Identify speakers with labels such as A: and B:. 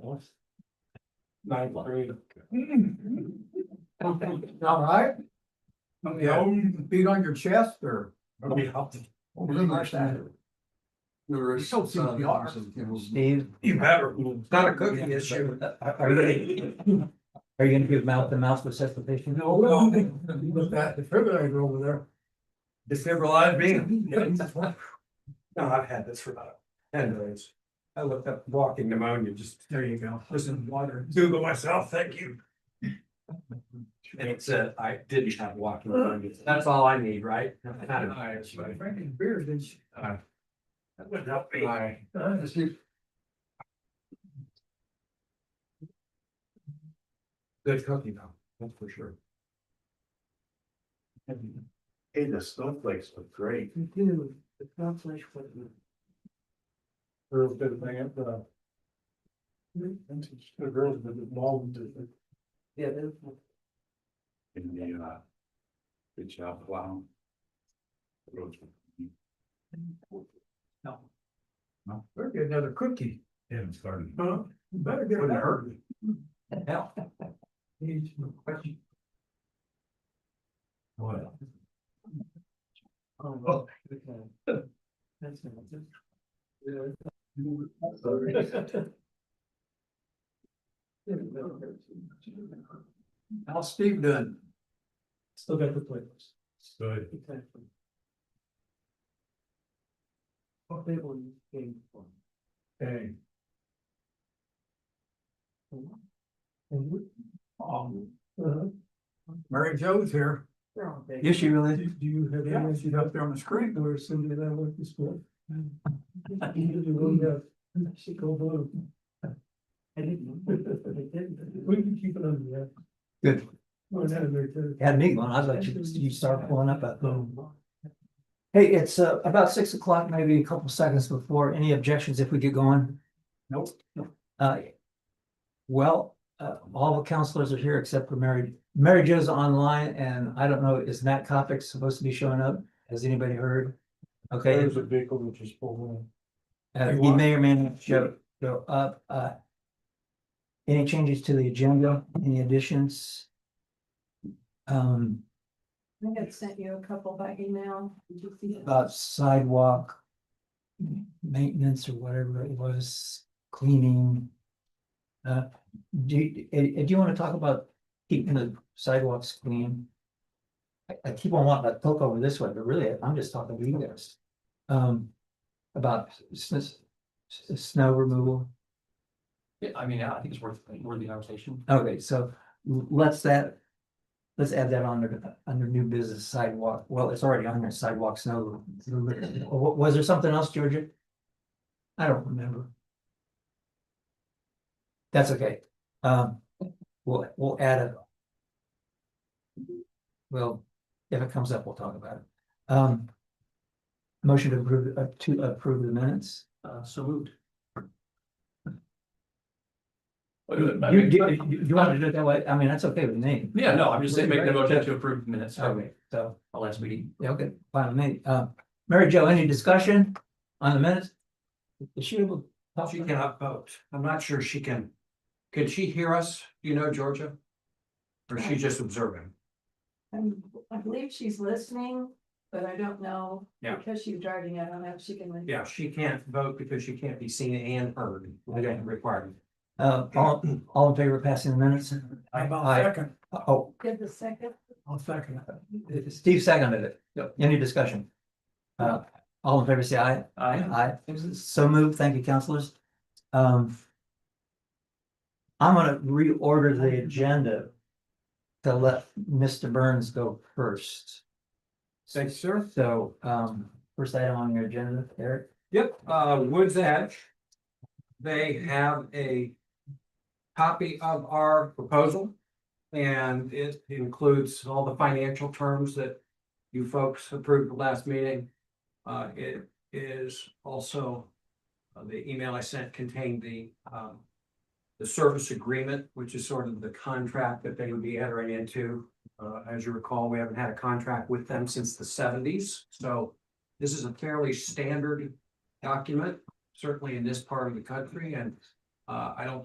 A: was. Nine three.
B: All right,
A: Yeah.
B: beat on your chest or?
C: There is
B: So few
C: some-
B: yards.
C: some people's-
D: Steve,
A: You better.
C: It's not a cooking issue.
D: are are you, are you gonna give mouth to mouth resuscitation?
B: With that defibrillator over there.
C: Defibrillate me.
A: No, I've had this for about ten days. I looked up walking pneumonia, just
B: There you go. Listen, water.
A: Google myself, thank you.
C: And it said I didn't have walking
A: Uh,
C: pneumonia. That's all I need, right? Not an
B: She was
C: issue.
B: drinking beer, didn't she?
C: Uh,
A: That would help me.
C: Aye. Good cooking though, that's for sure.
E: Hey, the snowflakes look great.
D: Dude, it's not flesh, but.
A: Girls did a thing at the. The girls did the mall did the
D: Yeah,
E: in the, uh, good job, wow. Roads were clean.
B: Better get another cookie.
E: Yeah, it's starting.
B: Huh? Better get
E: Wouldn't
B: another.
E: hurt me.
D: hell.
B: Needs no question.
E: What?
D: Oh, That's.
B: How's Steve doing?
A: Still got the playlist.
E: Good.
D: Exactly. What label you came from?
A: Hey.
B: Um, Mary Jo's here.
D: Yes, she really.
A: Do you have
B: Yeah,
A: any
B: she's up there on the screen.
A: where Cindy and I went to school? You really have, she go blue.
D: I didn't. know. I didn't.
A: We can keep it on, yeah.
D: Good.
A: Well, that is very good.
D: Had me going, I'd like you, you start pulling up that little. Hey, it's uh about six o'clock, maybe a couple seconds before, any objections if we get going?
B: Nope.
D: Uh. Well, uh, all the counselors are here except for Mary, Mary Jo's online and I don't know, is Nat Kopic supposed to be showing up? Has anybody heard? Okay,
A: There's a vehicle which is pulling
D: uh,
B: Hey,
D: he
B: what?
D: may or may not show, show up, uh. Any changes to the agenda, any additions? Um.
F: I had sent you a couple by email. Did you see that?
D: about sidewalk. Maintenance or whatever it was, cleaning. Uh, do, you- eh, eh, do you want to talk about keeping the sidewalks clean? I, I keep on wanting to poke over this way, but really, I'm just talking to you guys. Um, about s- s- s- snow removal.
C: I mean, I think it's worth, worth the conversation.
D: Okay, so l- let's that. Let's add that under, under new business sidewalk. Well, it's already on there sidewalk snow. removal. Wa- Was there something else, Georgia? I don't remember. That's okay. Um, we'll, we'll add it. Well, if it comes up, we'll talk about it. Um. Motion to approve, uh, to approve the minutes.
C: Uh, so moved.
D: You, you, you- you want to do it that way? I mean, that's okay with me.
C: Yeah, no, I'm just saying, make the motion to approve the minutes from
D: Okay, so.
C: our last meeting.
D: Yeah, okay, fine, me, uh, Mary Jo, any discussion on the minutes? Is she able? to
C: She cannot vote. I'm not sure she can. Can she hear us? Do you know, Georgia? Or is she just observing?
F: Um, I believe she's listening, but I don't know.
C: Yeah.
F: Because she's driving, I don't know if she can. listen.
C: Yeah, she can't vote because she can't be seen and heard.
D: Okay.
C: Required.
D: Uh, all, all in favor of passing the minutes?
B: How
D: Aye.
B: about second?
D: Oh, Uh,
F: Give the second.
B: I'll second it.
D: Steve seconded it. Any discussion? Uh, all in favor, say aye. Aye. So moved, thank you, counselors. Um. I'm gonna reorder the agenda. To let Mr. Burns go first.
B: Thanks, sir.
D: So, um, first item on your agenda, Eric?
C: Yep, uh, Woods Edge. They have a copy of our proposal. And it includes all the financial terms that you folks approved the last meeting. Uh, it is also, uh, the email I sent contained the, um, the service agreement, which is sort of the contract that they would be entering into. Uh, as you recall, we haven't had a contract with them since the seventies, so this is a fairly standard document, certainly in this part of the country, and uh, I don't